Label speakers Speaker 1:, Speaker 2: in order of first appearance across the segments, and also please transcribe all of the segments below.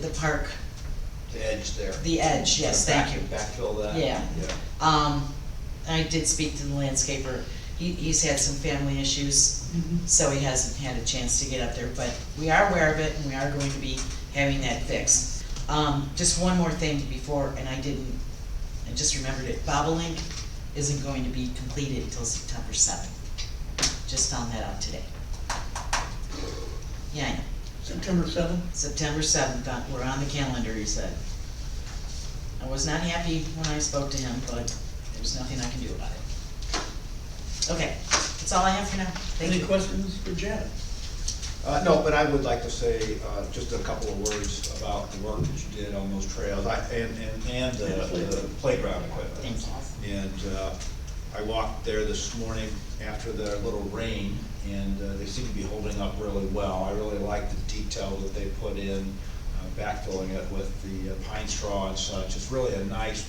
Speaker 1: the park,
Speaker 2: the edge there.
Speaker 1: the edge, yes, thank you.
Speaker 2: Back- Backfill that.
Speaker 1: Yeah. Um, I did speak to the landscaper, he, he's had some family issues, so he hasn't had a chance to get up there, but we are aware of it, and we are going to be having that fixed. Um, just one more thing before, and I didn't, I just remembered it, Bobolink isn't going to be completed until September seventh. Just found that out today. Yeah, I know.
Speaker 3: September seventh?
Speaker 1: September seventh, uh, we're on the calendar, he said. I was not happy when I spoke to him, but there's nothing I can do about it. Okay, that's all I have for now, thank
Speaker 3: Any
Speaker 1: you.
Speaker 3: questions for Janet?
Speaker 2: Uh, no, but I would like to say, uh, just a couple of words about the work that you did on those trails, I, and, and, and the the playground equipment.
Speaker 1: Thank you.
Speaker 2: And uh, I walked there this morning after the little rain, and uh, they seem to be holding up really well. I really like the detail that they put in, uh, backfilling it with the uh, pine straw and such. It's really a nice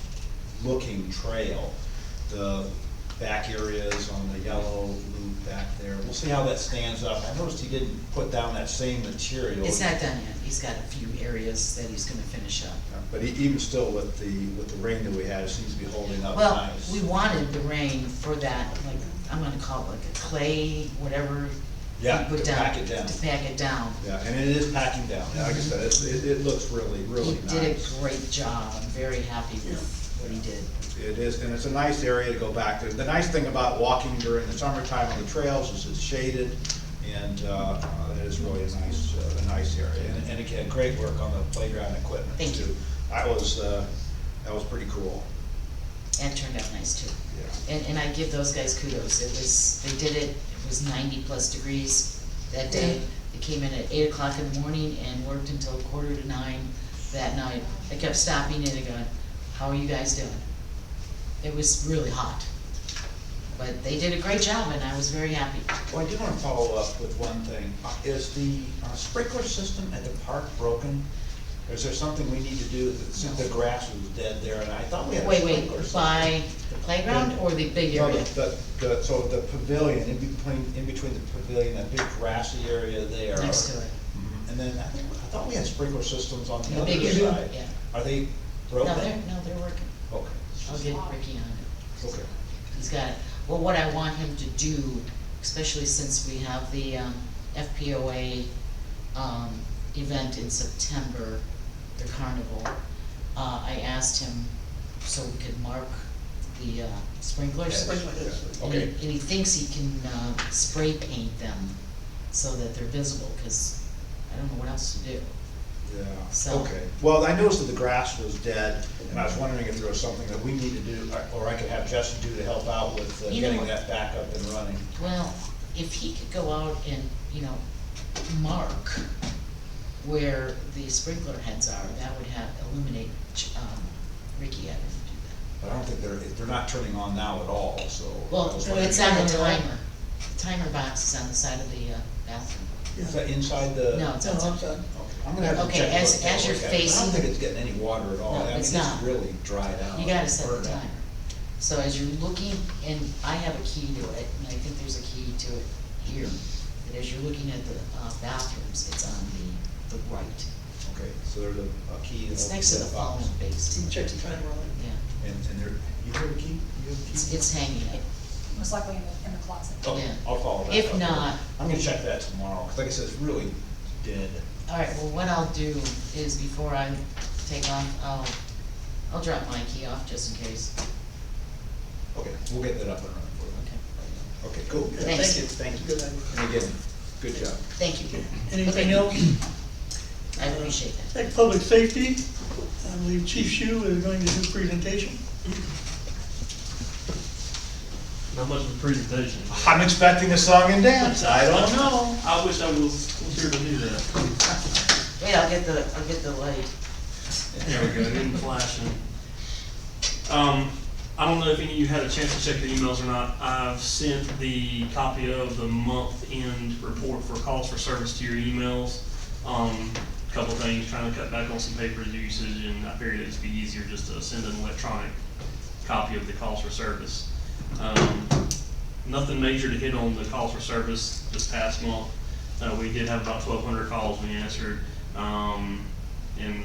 Speaker 2: looking trail. The back areas on the yellow loop back there, we'll see how that stands up. I noticed he didn't put down that same material.
Speaker 1: It's not done yet, he's got a few areas that he's gonna finish up.
Speaker 2: Uh, But e- even still with the, with the rain that we had, it seems to be holding up
Speaker 1: Well,
Speaker 2: Oh, nice.
Speaker 1: we wanted the rain for that, like, I'm gonna call it like a clay, whatever. you
Speaker 2: Yeah,
Speaker 1: put
Speaker 2: to pack it down.
Speaker 1: To pack it down.
Speaker 2: Yeah, and it is packing down, Yeah, like I said, it, it, it looks really, really
Speaker 1: He did
Speaker 2: nice.
Speaker 1: a great job, I'm very happy with what he did.
Speaker 2: It is, and it's a nice area to go back to. The nice thing about walking during the summertime on the trails is it's shaded, and, uh, uh, it is really a nice, uh, a nice area. And, and again, great work on the playground equipment
Speaker 1: Thank you.
Speaker 2: too. That was, uh, that was pretty cool,
Speaker 1: And it turned out nice too.
Speaker 2: yeah.
Speaker 1: And, and I give those guys kudos, it was, they did it, it was ninety plus degrees that day. They came in at eight o'clock in the morning and worked until quarter to nine that night. I kept stopping in and going, how are you guys doing? It was really hot. But they did a great job and I was very happy.
Speaker 2: Well, I do wanna follow up with one thing. Uh, Is the uh, sprinkler system at the park broken? Or Is there something we need to do, since the grass was dead there, and I thought we had a
Speaker 1: Wait,
Speaker 2: sprinkler
Speaker 1: wait,
Speaker 2: system?
Speaker 1: by the playground or the big
Speaker 2: No,
Speaker 1: area?
Speaker 2: The, the, so the pavilion, in between, in between the pavilion, that big grassy area there.
Speaker 1: Next to it.
Speaker 2: Mhm. And then I think, I thought we had sprinkler systems on the
Speaker 1: The
Speaker 2: other
Speaker 1: big area,
Speaker 2: side.
Speaker 1: yeah.
Speaker 2: Are they broken?
Speaker 1: No, they're, no, they're working.
Speaker 2: Okay,
Speaker 1: I'll get Ricky on it.
Speaker 2: okay.
Speaker 1: He's got, well, what I want him to do, especially since we have the um, FPOA um, event in September, the carnival, uh, I asked him so we could mark the uh, sprinklers.
Speaker 2: Yes.
Speaker 3: Sprinklers.
Speaker 1: And he-
Speaker 2: Okay.
Speaker 1: And he thinks he can uh, spray paint them so that they're visible, because I don't know what else to do.
Speaker 2: Yeah,
Speaker 1: So-
Speaker 2: okay. Well, I noticed that the grass was dead, and I was wondering if there was something that we need to do, or- or I could have Justin do to help out with uh,
Speaker 1: You know what?
Speaker 2: getting that back up and running.
Speaker 1: Well, if he could go out and, you know, mark where the sprinkler heads are, that would have, eliminate, um, Ricky having to do
Speaker 2: But I don't think they're, they're not turning on now at all, so.
Speaker 1: that.
Speaker 2: I
Speaker 1: Well,
Speaker 2: was
Speaker 1: it's
Speaker 2: wondering-
Speaker 1: on the timer, the timer box is on the side of the uh, bathroom.
Speaker 2: Is that inside the?
Speaker 1: No, it's
Speaker 3: No, I'm
Speaker 1: outside.
Speaker 3: sorry.
Speaker 2: Okay, I'm gonna have to
Speaker 1: Okay,
Speaker 2: check.
Speaker 1: as-
Speaker 2: what that
Speaker 1: as you're
Speaker 2: was at. I
Speaker 1: facing-
Speaker 2: don't think it's getting any water at all.
Speaker 1: No,
Speaker 2: I mean,
Speaker 1: it's not.
Speaker 2: really dried out.
Speaker 1: You gotta set the
Speaker 2: Burned out.
Speaker 1: timer. So as you're looking, and I have a key to it, and I think there's a key to it here, that as you're looking at the uh, bathrooms, it's on the, the right.
Speaker 2: Okay, so there's a, a key. that
Speaker 1: It's
Speaker 2: opens
Speaker 1: next to the
Speaker 2: that box.
Speaker 1: phone base,
Speaker 3: Check the time on
Speaker 1: yeah.
Speaker 2: And, and there, you have a key? You have a key?
Speaker 1: It's, it's hanging up.
Speaker 4: most likely in the, in the closet.
Speaker 2: Okay,
Speaker 1: yeah.
Speaker 2: I'll follow that.
Speaker 1: If
Speaker 2: up.
Speaker 1: not-
Speaker 2: I'm gonna check that tomorrow, 'cause like I said, it's really dead.
Speaker 1: All right, well, what I'll do is before I take off, I'll, I'll drop my key off just in case.
Speaker 2: Okay, we'll get that up and running for you.
Speaker 1: Okay,
Speaker 2: Okay, cool.
Speaker 3: it.
Speaker 1: Thanks.
Speaker 3: Thank you. Good idea.
Speaker 2: And again, good job.
Speaker 1: thank you. Okay.
Speaker 3: Anything else?
Speaker 1: I appreciate that.
Speaker 3: Like public safety, I believe Chief Shu is going to do a presentation.
Speaker 5: How much of a presentation?
Speaker 2: I'm expecting a song and dance, I don't know.
Speaker 3: know.
Speaker 5: I wish I was, was here to do that.
Speaker 1: Wait, I'll get the, I'll get the light.
Speaker 5: There we go, even flashing. Um, I don't know if any of you had a chance to check your emails or not. I've sent the copy of the month-end report for calls for service to your emails. Um, couple things, trying to cut back on some paper usage, and I figured it'd be easier just to send an electronic copy of the calls for service. Um, nothing major to hit on the calls for service this past month. Uh, we did have about twelve hundred calls we answered. Um, and